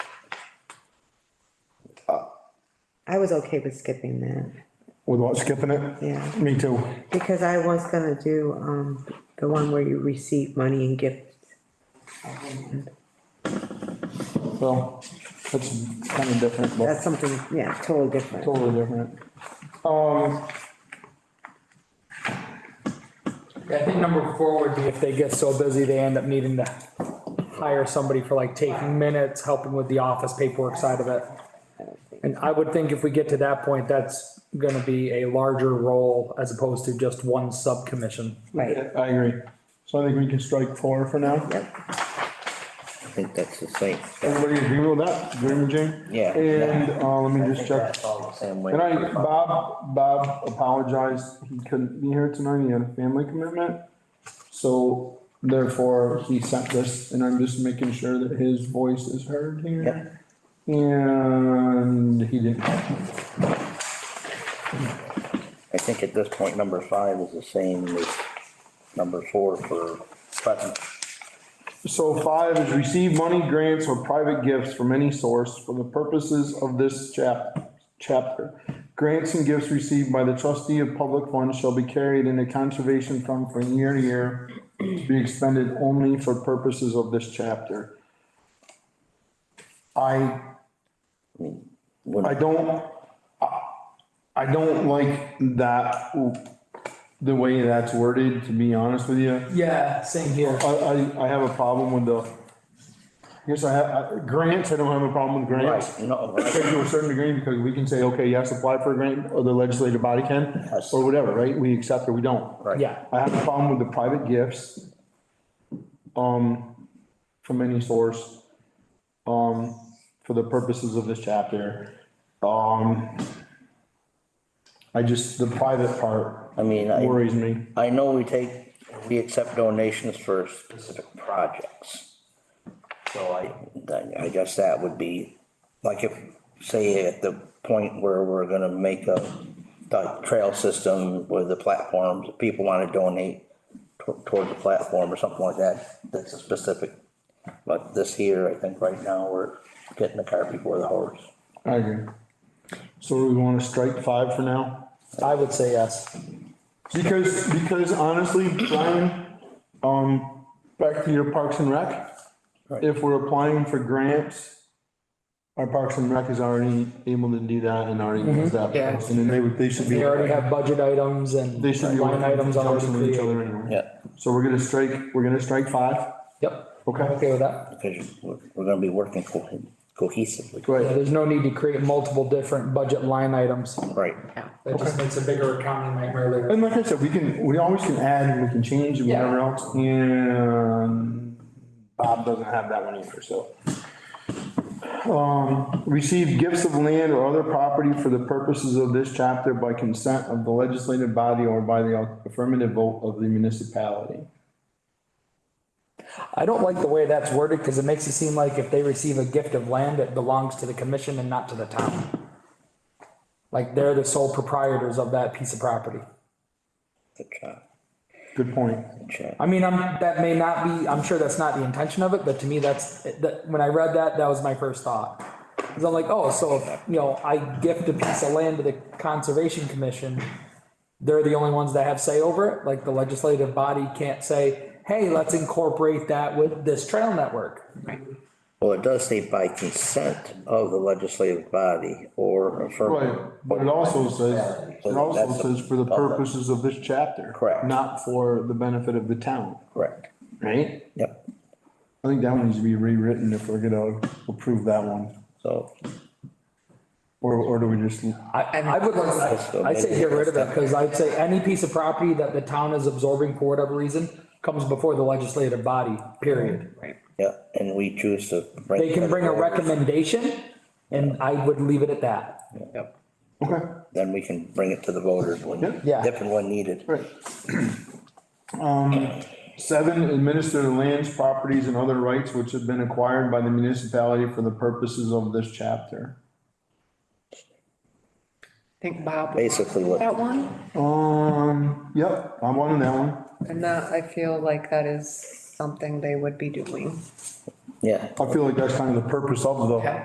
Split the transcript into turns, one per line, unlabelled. I was okay with skipping that,
With what, skipping it?
yeah,
Me too.
because I was gonna do, um, the one where you receive money and gifts.
Well, that's kind of different, but
That's something, yeah, totally different.
totally different. Um,
Yeah, I think number four would be if they get so busy, they end up needing to hire somebody for like taking minutes, helping with the office paperwork side of it. And I would think if we get to that point, that's gonna be a larger role as opposed to just one subcommission.
Right,
I agree. So I think we can strike four for now.
yep,
I think that's the same.
Everybody agree with that? Agree with Jane?
Yeah.
And, uh, let me just check.
That's all the same way.
And I, Bob, Bob apologized, he couldn't be here tonight, he had a family commitment. So therefore, he sent this, and I'm just making sure that his voice is heard here. And he didn't.
I think at this point, number five is the same as number four for Putnam.
So five is receive money, grants, or private gifts from any source for the purposes of this chap, chapter. Grants and gifts received by the trustee of public funds shall be carried in a conservation fund from year to year to be expended only for purposes of this chapter. I, I don't, I- I don't like that, the way that's worded, to be honest with you.
Yeah, same here.
I, I, I have a problem with the, yes, I have, I- grants, I don't have a problem with grants.
Right, no,
I
right.
think to a certain degree, because we can say, okay, yes, apply for a grant, or the legislative body can,
Yes.
or whatever, right? We accept or we don't.
right.
Yeah,
I have a problem with the private gifts. Um, from any source. Um, for the purposes of this chapter. Um. I just, the private part
I mean, I,
worries me.
I know we take, we accept donations for specific projects. So I, I- I guess that would be, like if, say at the point where we're gonna make a, the trail system with the platforms, if people wanna donate to- toward the platform or something like that, that's a specific. But this here, I think right now, we're getting the cart before the horse.
I agree. So we wanna strike five for now?
I would say yes.
Because, because honestly, Brian, um, back to your Parks and Rec,
Right.
if we're applying for grants, our Parks and Rec is already able to do that and already does that.
Mm-hmm. Yeah.
And then they would, they should be,
They already have budget items and
they should be
line
working
items already
with each
created.
other anyway.
Yeah.
So we're gonna strike, we're gonna strike five,
Yep,
okay?
okay with that.
Because we're, we're gonna be working co- cohesively.
Yeah,
Right,
there's no need to create multiple different budget line items.
Right.
That just makes a bigger accounting nightmare later.
and like I said, we can, we always can add and we can change and
Yeah.
whatever else, and Bob doesn't have that one either, so. Um, receive gifts of land or other property for the purposes of this chapter by consent of the legislative body or by the affirmative vote of the municipality.
I don't like the way that's worded because it makes it seem like if they receive a gift of land, it belongs to the commission and not to the town. Like they're the sole proprietors of that piece of property.
Good job,
Good point.
good job.
I mean, I'm, that may not be, I'm sure that's not the intention of it, but to me, that's, that, when I read that, that was my first thought. Cause I'm like, oh, so, if, you know, I gift a piece of land to the conservation commission. They're the only ones that have say over it, like the legislative body can't say, hey, let's incorporate that with this trail network.
Well, it does say by consent of the legislative body or
Right,
affirmative.
but it also says, it also
That's a-
says for the purposes of this chapter.
Correct.
Not for the benefit of the town,
Correct,
right?
yep.
I think that one needs to be rewritten if we're gonna approve that one.
So,
Or, or do we just,
I, I would like,
Also,
I'd say
maybe
get rid of it,
that's-
because I'd say any piece of property that the town is absorbing for whatever reason comes before the legislative body, period.
yeah, and we choose to.
They can bring a recommendation, and I would leave it at that.
Yep.
okay,
Then we can bring it to the voters when,
Yeah.
if and when needed.
right. Um, seven, administer the lands, properties and other rights which have been acquired by the municipality for the purposes of this chapter.
think Bob,
Basically what,
that one,
Um, yep, I'm on that one.
and that, I feel like that is something they would be doing.
yeah.
I feel like that's kind of the purpose of the.